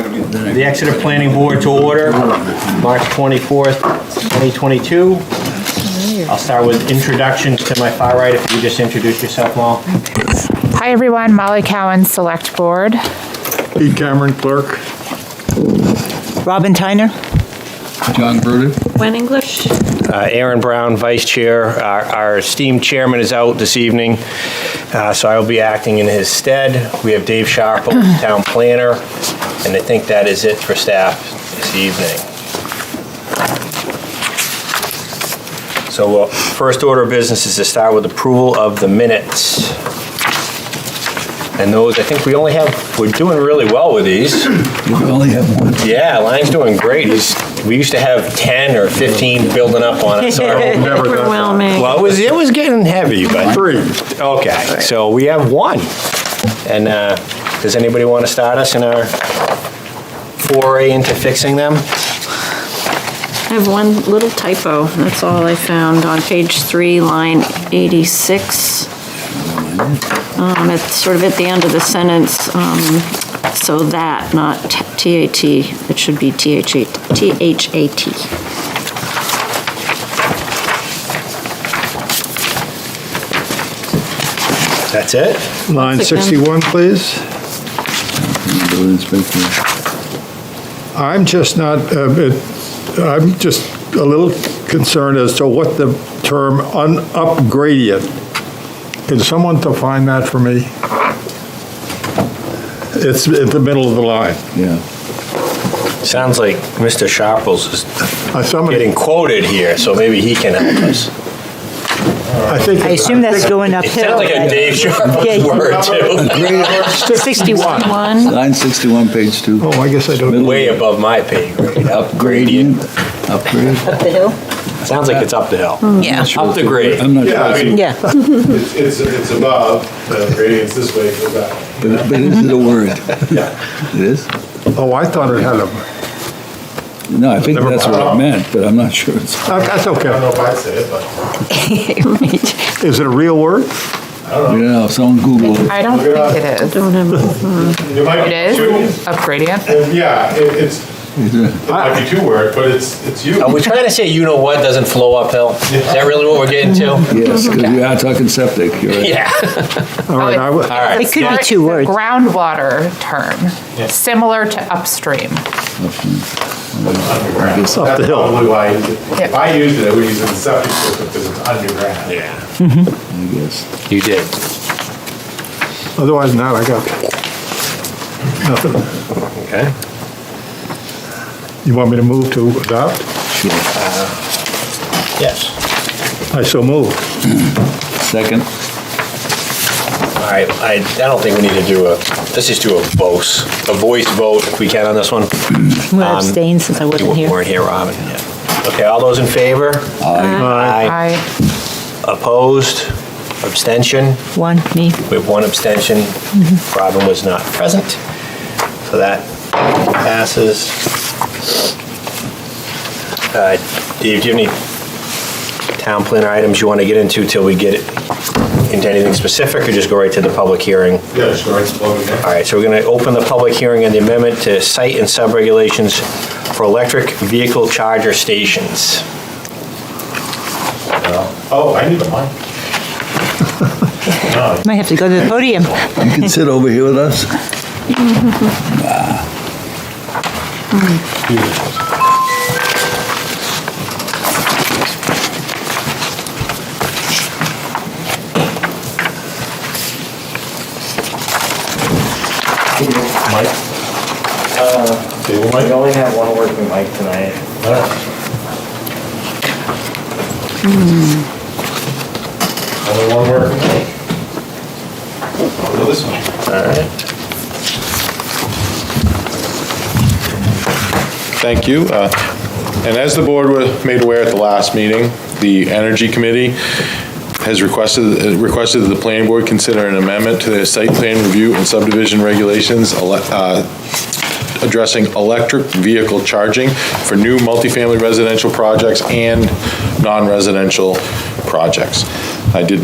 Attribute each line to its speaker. Speaker 1: the Exeter Planning Board to order, March 24th, 2022. I'll start with introductions to my far right, if you just introduce yourself, Mal.
Speaker 2: Hi, everyone. Molly Cowan, Select Board.
Speaker 3: Pete Cameron, clerk.
Speaker 4: Robin Tyner.
Speaker 5: John Bruder.
Speaker 6: When English,
Speaker 7: Uh, Aaron Brown, Vice Chair. Our- Our esteemed chairman is out this evening, uh, so I will be acting in his stead. We have Dave Sharp, Town Planner, and I think that is it for staff this evening. So uh, first order of business is to start with approval of the minutes. And those, I think we only have, we're doing really well with these.
Speaker 5: We only have one.
Speaker 7: Yeah, Lang's doing great. He's, we used to have 10 or 15 building up on us. Our-
Speaker 3: Never that.
Speaker 6: overwhelming.
Speaker 7: Well, it was, it was getting heavy, but.
Speaker 3: Three.
Speaker 7: Okay, so we have one. And uh, does anybody want to start us in our foray into fixing them?
Speaker 6: I have one little typo, that's all I found on page three, line 86. Um, It's sort of at the end of the sentence, um, so that, not T-A-T, it should be T-H-A-T. T-H-A-T.
Speaker 7: That's it?
Speaker 3: Line
Speaker 6: Click them.
Speaker 3: 61, please.
Speaker 5: Building inspector.
Speaker 3: I'm just not, uh, it- I'm just a little concerned as to what the term un- upgradient. Can someone define that for me? It's at the middle of the line.
Speaker 5: Yeah.
Speaker 7: Sounds like Mr. Sharples is
Speaker 3: Uh, Somebody,
Speaker 7: getting quoted here, so maybe he can help us.
Speaker 3: I think.
Speaker 4: I assume that's going
Speaker 7: It
Speaker 4: uphill.
Speaker 7: sounds like a Dave Sharples
Speaker 4: Yeah.
Speaker 7: word, too.
Speaker 3: Sixty-one.
Speaker 6: One,
Speaker 5: Line 61, page two.
Speaker 3: Oh, I guess I don't.
Speaker 7: Way above my pay grade.
Speaker 5: Upgrading. Upgrade.
Speaker 4: Up the hill?
Speaker 7: Sounds like it's up the hill.
Speaker 4: Yeah.
Speaker 7: Up the grade.
Speaker 5: I'm not
Speaker 8: Yeah, I
Speaker 5: sure,
Speaker 8: mean,
Speaker 4: Yeah.
Speaker 8: it's, it's it's above, the gradient's this way, uh, goes that.
Speaker 5: but but is it a word? It is?
Speaker 3: Oh, I thought it had a,
Speaker 5: No, I think
Speaker 3: Never
Speaker 5: that's what it
Speaker 8: mind.
Speaker 5: meant, but I'm not sure. It's
Speaker 3: that's
Speaker 8: I don't know
Speaker 3: okay.
Speaker 8: if I'd say it, but
Speaker 3: Is it a real word?
Speaker 5: You know, someone Google it.
Speaker 2: I don't think it is.
Speaker 6: don't have,
Speaker 8: it might
Speaker 2: It
Speaker 8: be
Speaker 2: is?
Speaker 8: two.
Speaker 2: Upgradient?
Speaker 8: and Yeah, it- it's, it might be two word, but it's, it's you.
Speaker 7: Are we trying to say you know what doesn't flow uphill? Is that really what we're getting to?
Speaker 5: Yes, because we are talking septic. You're right.
Speaker 7: Yeah.
Speaker 3: All right, I
Speaker 7: All
Speaker 3: would-
Speaker 7: right.
Speaker 4: Oh, It could be
Speaker 2: It's
Speaker 4: two
Speaker 2: a
Speaker 4: words.
Speaker 2: Groundwater term, similar to upstream.
Speaker 8: Underground.
Speaker 5: It's
Speaker 3: up the
Speaker 8: That's
Speaker 3: hill.
Speaker 8: probably why, I use it. if
Speaker 2: Yeah.
Speaker 8: I used it, I would use it in septic system because it's underground.
Speaker 7: Yeah,
Speaker 5: I guess.
Speaker 7: you did.
Speaker 3: otherwise not, I got nothing.
Speaker 7: Okay.
Speaker 3: You want me to move to adopt?
Speaker 5: Sure.
Speaker 7: Yes.
Speaker 3: I so move.
Speaker 5: Second.
Speaker 7: All right, I, I don't think we need to do a, let's just do a voice, a voice vote if we can on this one.
Speaker 4: I'm
Speaker 7: Um,
Speaker 4: going to abstain since I
Speaker 7: You
Speaker 4: wasn't here.
Speaker 7: weren't here, Robin, yeah. Okay, all those in favor? Aye.
Speaker 2: I,
Speaker 7: Opposed? Abstention?
Speaker 4: One, me.
Speaker 7: We have one abstention. Robin was not present. So that passes. Uh, Dave, do you have any town planner items you want to get into till we get into anything specific, or just go right to the public hearing?
Speaker 8: Yeah, sure, it's blowing there.
Speaker 7: All right, so we're going to open the public hearing on the amendment to site and sub-regulations for electric vehicle charger stations.
Speaker 8: Oh, I need a mic.
Speaker 4: Might have to go to the podium.
Speaker 5: You can sit over here with us.
Speaker 8: Mic? Table mic?
Speaker 7: Uh, only have one working mic tonight.
Speaker 8: Only one word. I'll go this one.
Speaker 9: Thank you. Uh, And as the board were made aware at the last meeting, the Energy Committee has requested, uh, requested that the planning board consider an amendment to their site plan review and subdivision regulations ele- uh, addressing electric vehicle charging for new multifamily residential projects and non-residential projects. I did